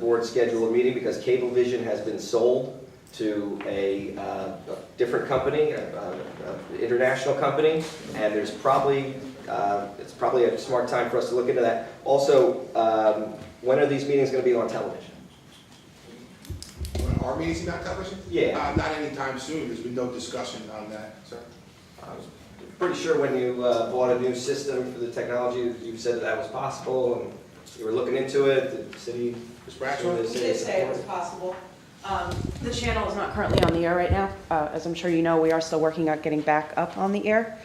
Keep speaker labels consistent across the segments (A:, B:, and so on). A: board schedule a meeting because Cablevision has been sold to a, uh, a different company, a- a- a international company, and there's probably, uh, it's probably a smart time for us to look into that. Also, um, when are these meetings going to be on television?
B: Are meetings not television?
A: Yeah.
B: Uh, Not anytime soon, there's been no discussion on that, sir.
A: I was Pretty sure when you uh, bought a new system for the technology, you said that was possible, and you were looking into it, the city.
B: Ms. Bradshaw?
A: Sure,
B: Yes,
A: this-
C: We did say it was possible. Um, The channel is not currently on the air right now. Uh, As I'm sure you know, we are still working on getting back up on the air,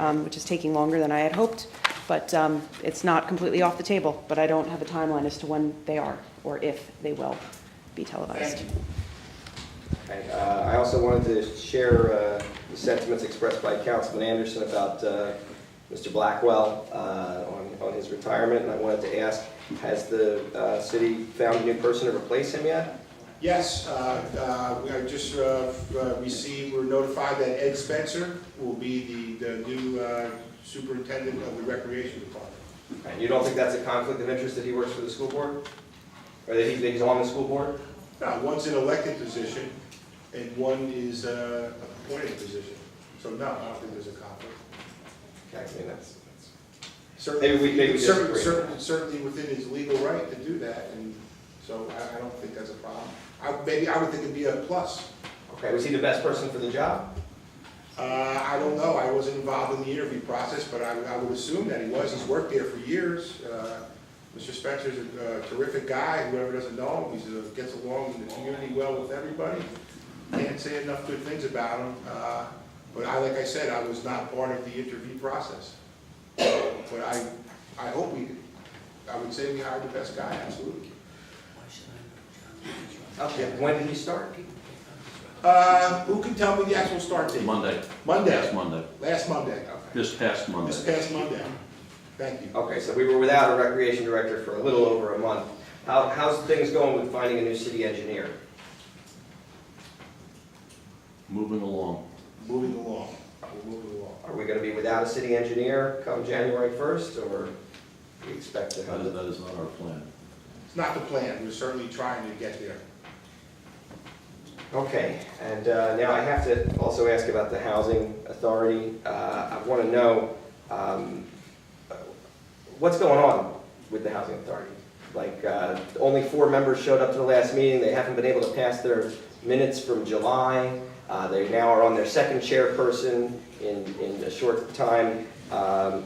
C: um, which is taking longer than I had hoped, but um, it's not completely off the table, but I don't have a timeline as to when they are or if they will be televised.
A: Okay, uh, I also wanted to share uh, the sentiments expressed by Councilman Anderson about uh, Mr. Blackwell uh, on on his retirement, and I wanted to ask, has the uh, city found a new person to replace him yet?
B: Yes, uh, uh, we have just uh, uh, received, we're notified that Ed Spencer will be the, the new uh, superintendent of the recreation department.
A: And you don't think that's a conflict of interest that he works for the school board? Or that he- that he's on the school board?
B: Now, one's an elected position and one is uh, a appointed position. So no, I don't think there's a conflict.
A: Okay, I mean, that's, that's-
B: Certainly,
A: Maybe we- maybe we
B: cer-
A: disagree.
B: cer- Certainly within his legal right to do that, and so I, I don't think that's a problem. I, maybe I would think it'd be a plus.
A: okay, was he the best person for the job?
B: Uh, I don't know, I wasn't involved in the interview process, but I, I would assume that he was, he's worked there for years. Uh, Mr. Spencer's a uh, terrific guy, whoever doesn't know him, he gets along in the community well with everybody. Can't say enough good things about him, uh, but I, like I said, I was not part of the interview process. But I, I hope we, I would say we hired the best guy, absolutely.
A: Okay, when did he start?
B: Uh, who can tell me the actual start date?
D: Monday, last
B: Monday,
D: Monday,
B: last Monday, okay.
D: this past
B: This
D: Monday.
B: past Monday, thank you.
A: Okay, so we were without a recreation director for a little over a month. How, how's things going with finding a new city engineer?
D: Moving along.
B: Moving along, we're moving along.
A: Are we gonna be without a city engineer come January first, or we expect to
D: That
A: have
D: is,
A: it?
D: that is not our plan.
B: It's not the plan, we're certainly trying to get there.
A: Okay, and uh, now I have to also ask about the housing authority. Uh, I wanna know, um, what's going on with the housing authority? Like, uh, only four members showed up to the last meeting, they haven't been able to pass their minutes from July. Uh, They now are on their second chairperson in, in a short time. Um,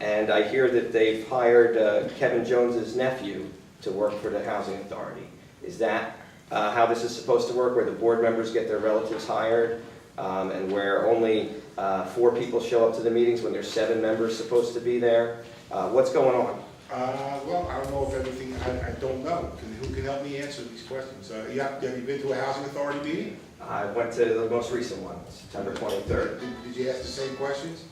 A: And I hear that they've hired uh, Kevin Jones's nephew to work for the housing authority. Is that uh, how this is supposed to work, where the board members get their relatives hired? um, And where only uh, four people show up to the meetings when there's seven members supposed to be there? Uh, What's going on?
B: Uh, well, I don't know if everything, I, I don't know, Can- who can help me answer these questions? Uh, you have, have you been to a housing authority meeting?
A: I went to the most recent one, September 23rd.
B: Did, did you ask the same questions?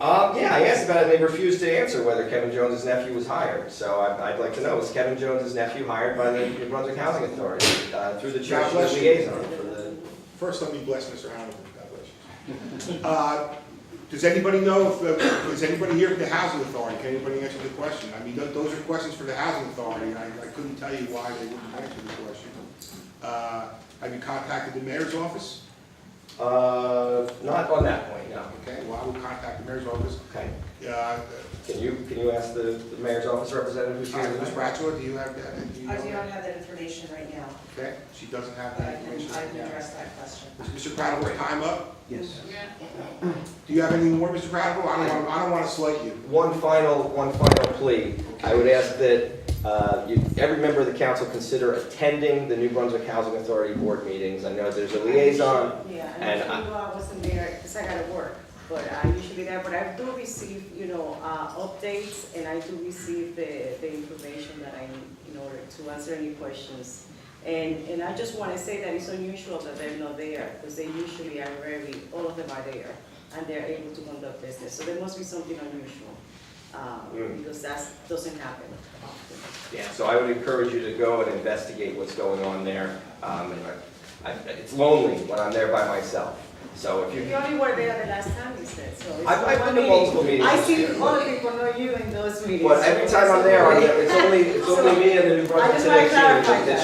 A: Uh, yeah, I asked about it, and they refused to answer whether Kevin Jones's nephew was hired. So I'd, I'd like to know, was Kevin Jones's nephew hired by the New Brunswick Housing Authority uh, through the church
B: God bless you.
A: liaison for the...
B: First, let me bless Mr. Hanover, God bless you. Uh, does anybody know, if, uh, is anybody here from the housing authority, can anybody answer the question? I mean, tho- those are questions for the housing authority, I, I couldn't tell you why they wouldn't answer the question. Uh, have you contacted the mayor's office?
A: Uh, not on that point, no.
B: Okay, well, I will contact the mayor's office.
A: Okay.
B: Uh,
A: Can you, can you ask the the mayor's office representative who's here
B: Ms.
A: tonight?
B: Bradshaw, do you have that? you
E: I
B: know
E: do
B: that?
E: not have that information right now,
B: Okay, she doesn't have
E: but I
B: that
E: can,
B: information.
E: I can address that question.
B: Is Mr. Cradible, time up?
A: Yes.
B: Do you have any more, Mr. Cradible? I don't want, I don't want to slight you.
A: One final, one final plea. I would ask that uh, you- every member of the council consider attending the New Brunswick Housing Authority Board meetings. I know there's a liaison
F: Yeah,
A: And
F: and
A: I-
F: actually, well, I wasn't there, because I gotta work, but I usually be there, but I do receive, you know, uh, updates, and I do receive the, the information that I need in order to answer any questions. And, and I just wanna say that it's unusual that they're not there, because they usually are very, all of them are there, and they're able to conduct business, so there must be something unusual, um,
A: Mm.
F: because that doesn't happen often.
A: Yeah, so I would encourage you to go and investigate what's going on there. Um, and I- I- It's lonely when I'm there by myself, so if
F: You
A: you,
F: only were there the last time you said, so it's
A: I've- I've
F: one
A: been to multiple
F: meeting.
A: meetings
F: I see
A: this year,
F: all
A: but-
F: the people, not you in those meetings.
A: but every time I'm there, I'm- it's only, it's only me and the New
F: I
A: Brunswick
F: just wanna
A: Today team.
F: clarify that.